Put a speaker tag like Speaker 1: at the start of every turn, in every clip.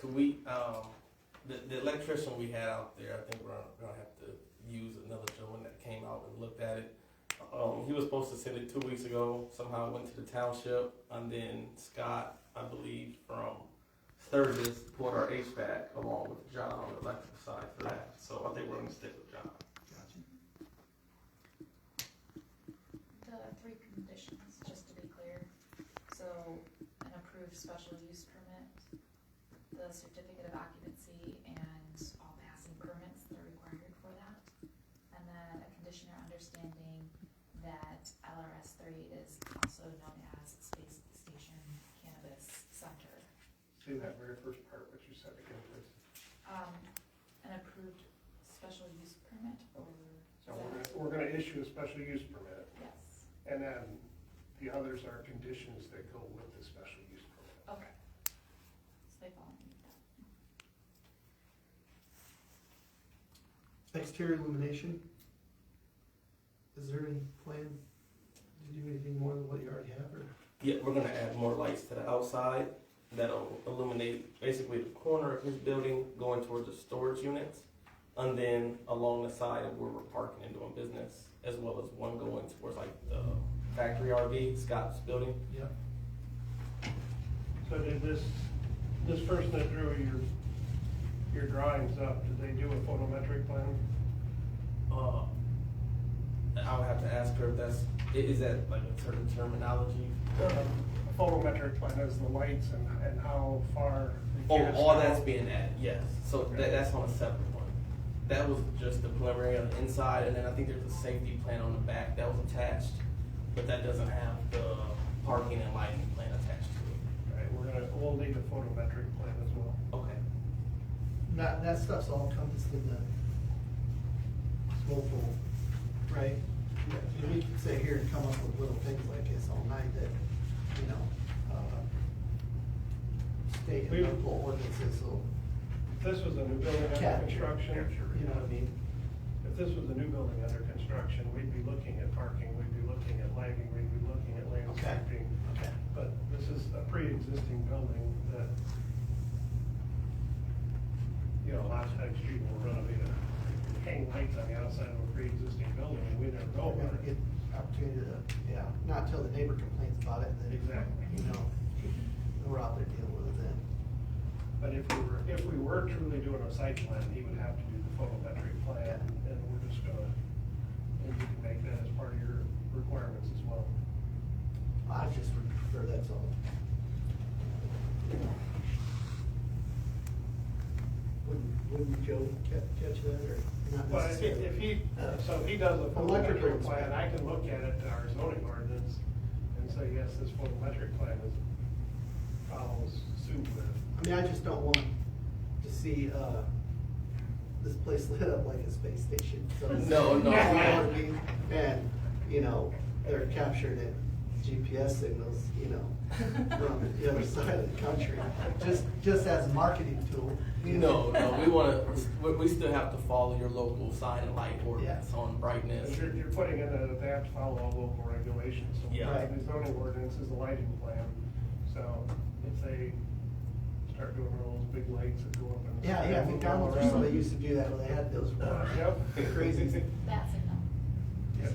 Speaker 1: So we, um, the, the electrician we had out there, I think we're gonna have to use another gentleman that came out and looked at it. Um, he was supposed to send it two weeks ago, somehow it went to the township, and then Scott, I believe, from Sturgis, bought our HVAC along with John on the electrical side for that, so I think we're gonna stick with John.
Speaker 2: The three conditions, just to be clear, so an approved special use permit, the certificate of occupancy and all passing permits that are required for that. And then a condition or understanding that LRS three is also known as Space Station Cannabis Center.
Speaker 3: Say that very first part, what you said again, please.
Speaker 2: Um, an approved special use permit or,
Speaker 3: So we're gonna, we're gonna issue a special use permit,
Speaker 2: yes,
Speaker 3: and then the others are conditions that go with the special use permit.
Speaker 2: okay. So they fall underneath that.
Speaker 4: Exterior illumination. Is there any plan to do anything more than what you already have, or?
Speaker 1: Yeah, we're gonna add more lights to the outside that'll illuminate basically the corner of his building going towards the storage units. And then along the side of where we're parking and doing business, as well as one going towards like the factory RV, Scott's building.
Speaker 4: Yeah.
Speaker 3: So did this, this person that drew your, your drawings up, did they do a photometric plan?
Speaker 1: Uh, I would have to ask her if that's, i- is that like a certain terminology?
Speaker 3: Uh, A photometric plan is the lights and, and how far. they
Speaker 1: Oh,
Speaker 3: get us
Speaker 1: all
Speaker 3: down.
Speaker 1: that's being added, yes. So that, that's on a separate one. That was just the preliminary on the inside, and then I think there's a safety plan on the back that was attached, but that doesn't have the parking and lighting plan attached to
Speaker 3: Right, we're gonna, we'll need a photometric plan as well.
Speaker 1: it. Okay.
Speaker 4: That, that stuff's all encompassed in the smoke pool, right? And we can sit here and come up with little things like this all night that, you know, uh, state and local ordinances will,
Speaker 3: If This was a new building under
Speaker 4: Capture.
Speaker 3: construction.
Speaker 4: you know what I mean?
Speaker 3: If this was a new building under construction, we'd be looking at parking, we'd be looking at lighting, we'd be looking at landscaping.
Speaker 4: Okay.
Speaker 3: But this is a pre-existing building that, you know, last time street will renovate it, hang lights on the outside of a pre-existing building, and we never know
Speaker 4: We're gonna
Speaker 3: about
Speaker 4: oh, get
Speaker 3: it.
Speaker 4: opportunity to, yeah, not till the neighbor complains about it, and then,
Speaker 3: Exactly.
Speaker 4: you know, we're out there dealing with it then.
Speaker 3: But if we were, if we were truly doing a site plan, he would have to do the photometric plan,
Speaker 4: Yeah.
Speaker 3: and we're just gonna, and you can make that as part of your requirements as well.
Speaker 4: I just would prefer that's all. Wouldn't, wouldn't Joe catch, catch that, or not
Speaker 3: But if
Speaker 4: necessarily?
Speaker 3: if he, so if he does a
Speaker 4: Electrical
Speaker 3: photometric
Speaker 4: inspection.
Speaker 3: plan, I can look at it in our zoning ordinance and say, yes, this photometric plan is, follows suit with.
Speaker 4: I mean, I just don't want to see, uh, this place lit up like a space station. So it's-
Speaker 1: No, no.
Speaker 4: I want to be, and, you know, they're captured at GPS signals, you know, from the other side of the country, just, just as a marketing tool. you
Speaker 1: No,
Speaker 4: know.
Speaker 1: no, we wanna, we, we still have to follow your local sign and light ordinance on brightness.
Speaker 3: But You're, you're putting in that they have to follow all local regulations. So
Speaker 1: Yeah.
Speaker 3: part of The zoning ordinance is a lighting plan, so if they start doing all those big lights that go up and.
Speaker 4: Yeah, yeah, McDonald's or somebody used to do that when they had those. uh,
Speaker 3: Yep.
Speaker 4: Crazy.
Speaker 2: That's a no.
Speaker 3: Yeah,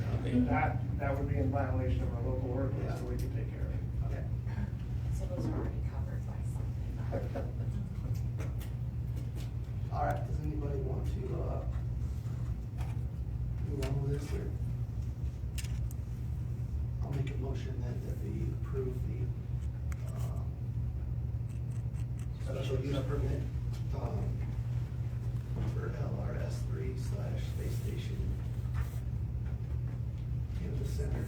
Speaker 3: That, that would be in violation of our local ordinance, so we can take care of it.
Speaker 4: Okay.
Speaker 2: So those are already covered by something.
Speaker 4: All right, does anybody want to, uh, move on with this or? I'll make a motion that, that we approve the, um, special use permit, um, for LRS three slash space station campus center,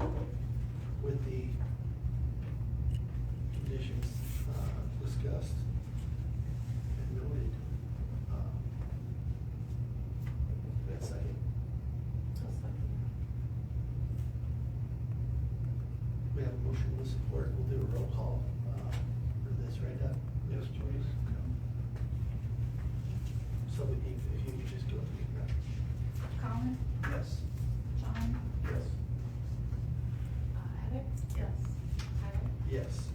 Speaker 4: um, with the conditions, uh, discussed and noted. um, That second, we have a motion with support, we'll do a roll call uh, for this right up.
Speaker 3: Yes, please.
Speaker 4: So we need, if you could just go through that.
Speaker 2: Colin,
Speaker 4: Yes.
Speaker 2: John,
Speaker 4: Yes.
Speaker 2: uh, Heather? Yes. Tyler?
Speaker 4: Yes.